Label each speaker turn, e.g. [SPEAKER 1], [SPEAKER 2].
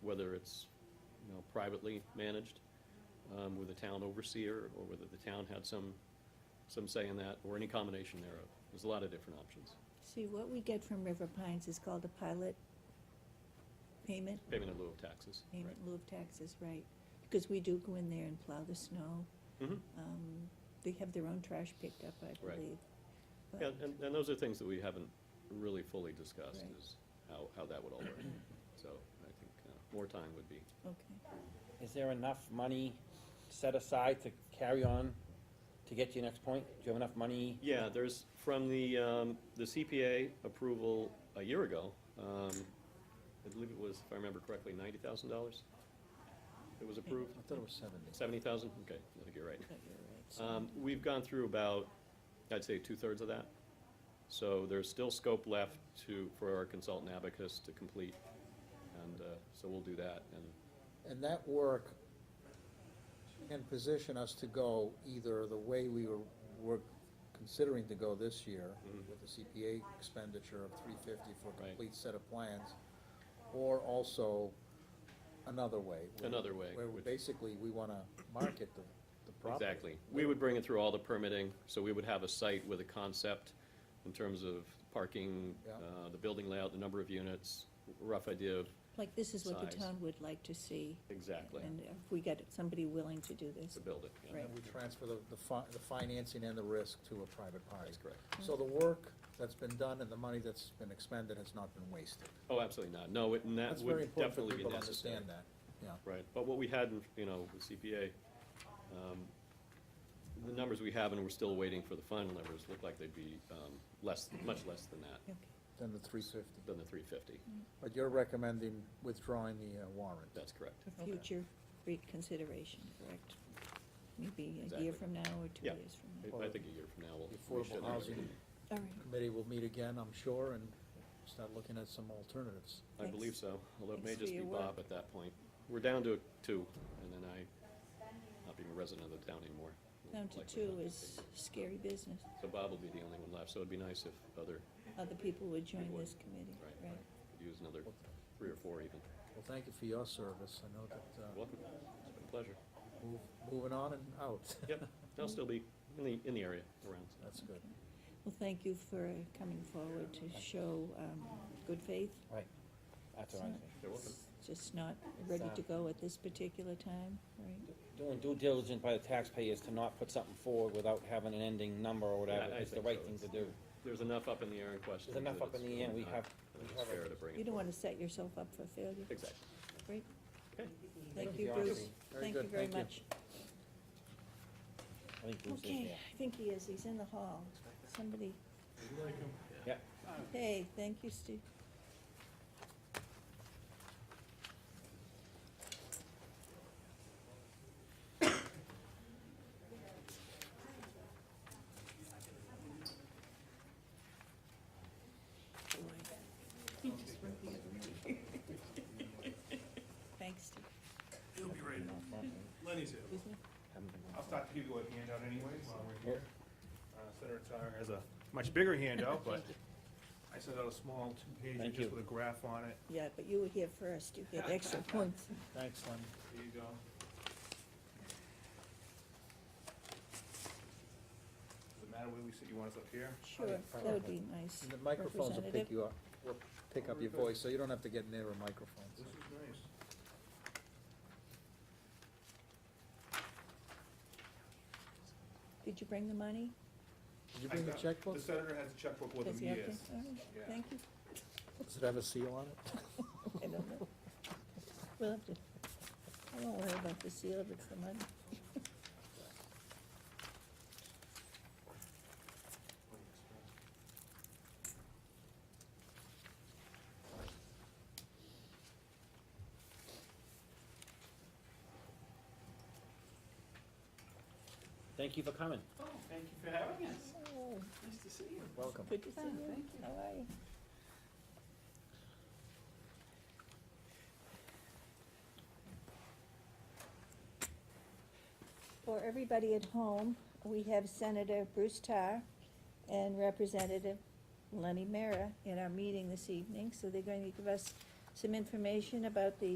[SPEAKER 1] whether it's, you know, privately managed, um, with a town overseer, or whether the town had some, some say in that, or any combination thereof. There's a lot of different options.
[SPEAKER 2] See, what we get from River Pines is called a pilot payment,
[SPEAKER 1] Payment in lieu of taxes, right?
[SPEAKER 2] payment in lieu of taxes, right? Because we do go in there and plow the snow.
[SPEAKER 1] Mhm.
[SPEAKER 2] Um, They have their own trash picked up, I
[SPEAKER 1] Right.
[SPEAKER 2] believe. But-
[SPEAKER 1] Yeah, and, and those are things that we haven't really fully discussed,
[SPEAKER 2] Right.
[SPEAKER 1] is how, how that would all work. So I think uh, more time would be,
[SPEAKER 2] Okay.
[SPEAKER 3] Is there enough money set aside to carry on to get to your next point? Do you have enough money?
[SPEAKER 1] yeah, there's, from the, um, the CPA approval a year ago, um, I believe it was, if I remember correctly, ninety thousand dollars? It was approved,
[SPEAKER 4] I thought it was seventy.
[SPEAKER 1] seventy thousand? Okay, I think you're right.
[SPEAKER 2] But you're right, so-
[SPEAKER 1] Um, We've gone through about, I'd say, two-thirds of that. So there's still scope left to, for our consultant abacus to complete, and uh, so we'll do that, and
[SPEAKER 4] And that work can position us to go either the way we were, were considering to go this year, with the CPA expenditure of three fifty for a
[SPEAKER 1] Mm-hmm. Right.
[SPEAKER 4] complete set of plans, or also another way. where-
[SPEAKER 1] Another way,
[SPEAKER 4] Where
[SPEAKER 1] which-
[SPEAKER 4] basically we wanna market the, the property.
[SPEAKER 1] Exactly. We would bring it through all the permitting, so we would have a site with a concept in terms of parking,
[SPEAKER 4] Yeah.
[SPEAKER 1] uh, the building layout, the number of units, rough idea of,
[SPEAKER 2] Like, this is what the
[SPEAKER 1] size.
[SPEAKER 2] town would like to see.
[SPEAKER 1] exactly,
[SPEAKER 2] And if we get somebody willing to do this,
[SPEAKER 1] to build it. yeah.
[SPEAKER 2] Right.
[SPEAKER 4] And we transfer the, the fi- the financing and the risk to a private party.
[SPEAKER 1] That's correct.
[SPEAKER 4] So the work that's been done and the money that's been expended has not been wasted.
[SPEAKER 1] Oh, absolutely not. No, it- and that
[SPEAKER 4] That's very
[SPEAKER 1] would
[SPEAKER 4] important for
[SPEAKER 1] definitely be
[SPEAKER 4] people to
[SPEAKER 1] necessary.
[SPEAKER 4] understand that, yeah.
[SPEAKER 1] Right, but what we had, in you know, with CPA, um, the numbers we have, and we're still waiting for the final numbers, look like they'd be um, less, much less than that,
[SPEAKER 2] okay,
[SPEAKER 4] Than the three fifty.
[SPEAKER 1] than the three fifty.
[SPEAKER 4] But you're recommending withdrawing the uh, warrant?
[SPEAKER 1] That's correct.
[SPEAKER 2] for future reconsideration, correct? Maybe a
[SPEAKER 1] Exactly.
[SPEAKER 2] year from now or two
[SPEAKER 1] Yeah.
[SPEAKER 2] years from now.
[SPEAKER 1] I- I think a year from now, we'll.
[SPEAKER 4] The
[SPEAKER 1] we should
[SPEAKER 4] Affordable
[SPEAKER 1] have-
[SPEAKER 4] Housing
[SPEAKER 2] All right.
[SPEAKER 4] Committee will meet again, I'm sure, and start looking at some alternatives.
[SPEAKER 1] I believe
[SPEAKER 2] Thanks.
[SPEAKER 1] so, although it may
[SPEAKER 2] Thanks for
[SPEAKER 1] just be
[SPEAKER 2] your
[SPEAKER 1] Bob
[SPEAKER 2] work.
[SPEAKER 1] at that point. We're down to two, and then I, not being a resident of the town anymore. will
[SPEAKER 2] Down to
[SPEAKER 1] likely
[SPEAKER 2] two
[SPEAKER 1] not be
[SPEAKER 2] is
[SPEAKER 1] taken.
[SPEAKER 2] scary business.
[SPEAKER 1] So Bob will be the only one left, so it'd be nice if other,
[SPEAKER 2] Other people would join
[SPEAKER 1] Would.
[SPEAKER 2] this committee,
[SPEAKER 1] right,
[SPEAKER 2] right?
[SPEAKER 1] could use another three or four even.
[SPEAKER 4] Well, thank you for your service, I know that, uh,
[SPEAKER 1] Welcome, it's been a pleasure.
[SPEAKER 4] move- moving on and out,
[SPEAKER 1] Yep, I'll still be in the, in the area around. so.
[SPEAKER 4] that's good.
[SPEAKER 2] Well, thank you for coming forward to show um, good faith.
[SPEAKER 3] Right, that's what I'm saying.
[SPEAKER 1] You're welcome. uh,
[SPEAKER 2] It's Just not ready to
[SPEAKER 3] um,
[SPEAKER 2] go at this particular time, right?
[SPEAKER 3] Doing due diligence by the taxpayers to not put something forward without having an ending number or whatever
[SPEAKER 1] I
[SPEAKER 3] is the
[SPEAKER 1] think
[SPEAKER 3] right
[SPEAKER 1] so.
[SPEAKER 3] thing to do.
[SPEAKER 1] There's enough up in the air in question.
[SPEAKER 3] There's enough up in the air, we have,
[SPEAKER 1] I
[SPEAKER 3] we
[SPEAKER 1] think it's
[SPEAKER 3] have
[SPEAKER 1] fair
[SPEAKER 3] a
[SPEAKER 1] to bring it.
[SPEAKER 2] You don't
[SPEAKER 1] forward.
[SPEAKER 2] want to set yourself up for failure.
[SPEAKER 1] Exactly.
[SPEAKER 2] Great.
[SPEAKER 1] Okay.
[SPEAKER 2] Thank
[SPEAKER 3] Thank
[SPEAKER 2] you,
[SPEAKER 3] you,
[SPEAKER 2] Bruce.
[SPEAKER 3] Archie.
[SPEAKER 4] Very
[SPEAKER 2] Thank
[SPEAKER 4] good,
[SPEAKER 2] you very
[SPEAKER 4] thank you.
[SPEAKER 2] much.
[SPEAKER 3] I think Bruce is
[SPEAKER 2] Okay,
[SPEAKER 3] there.
[SPEAKER 2] I think he is, he's in the hall. Somebody,
[SPEAKER 3] Yep.
[SPEAKER 2] hey, thank you, Steve. Thanks, Steve.
[SPEAKER 5] He'll be ready.
[SPEAKER 3] No problem.
[SPEAKER 5] Lenny's here.
[SPEAKER 3] Haven't been-
[SPEAKER 5] I'll start to give you a handout anyways while we're here. Uh, Senator Tyra has a much bigger handout, but I sent out a small two-pager
[SPEAKER 3] Thank
[SPEAKER 5] just
[SPEAKER 3] you.
[SPEAKER 5] with a graph on it.
[SPEAKER 2] Yeah, but you were here first, you get extra points.
[SPEAKER 4] Thanks, Lenny.
[SPEAKER 5] There you go. Does it matter where we sit? You want us up here?
[SPEAKER 2] Sure, that would be nice.
[SPEAKER 4] And The microphones will pick
[SPEAKER 2] Representative.
[SPEAKER 4] you up, will pick up your voice, so you don't have to get near a microphone.
[SPEAKER 5] This is nice.
[SPEAKER 2] Did you bring the money?
[SPEAKER 4] Did you bring the
[SPEAKER 5] I got-
[SPEAKER 4] checkbook?
[SPEAKER 5] The senator has a checkbook with
[SPEAKER 2] Does he
[SPEAKER 5] him,
[SPEAKER 2] have to?
[SPEAKER 5] yes.
[SPEAKER 2] All right,
[SPEAKER 5] Yeah.
[SPEAKER 2] Thank you.
[SPEAKER 4] Does it have a seal on it?
[SPEAKER 2] I don't know. We'll have to, I won't worry about the seal if it's the money.
[SPEAKER 3] Thank you for coming.
[SPEAKER 6] Oh, thank you for having us.
[SPEAKER 2] Oh,
[SPEAKER 6] Nice to see you.
[SPEAKER 4] Welcome.
[SPEAKER 2] Good to see
[SPEAKER 6] Ah,
[SPEAKER 2] you.
[SPEAKER 6] thank you.
[SPEAKER 2] How are you? For everybody at home, we have Senator Bruce Tarr and Representative Lenny Mara in our meeting this evening, so they're going to give us some information about the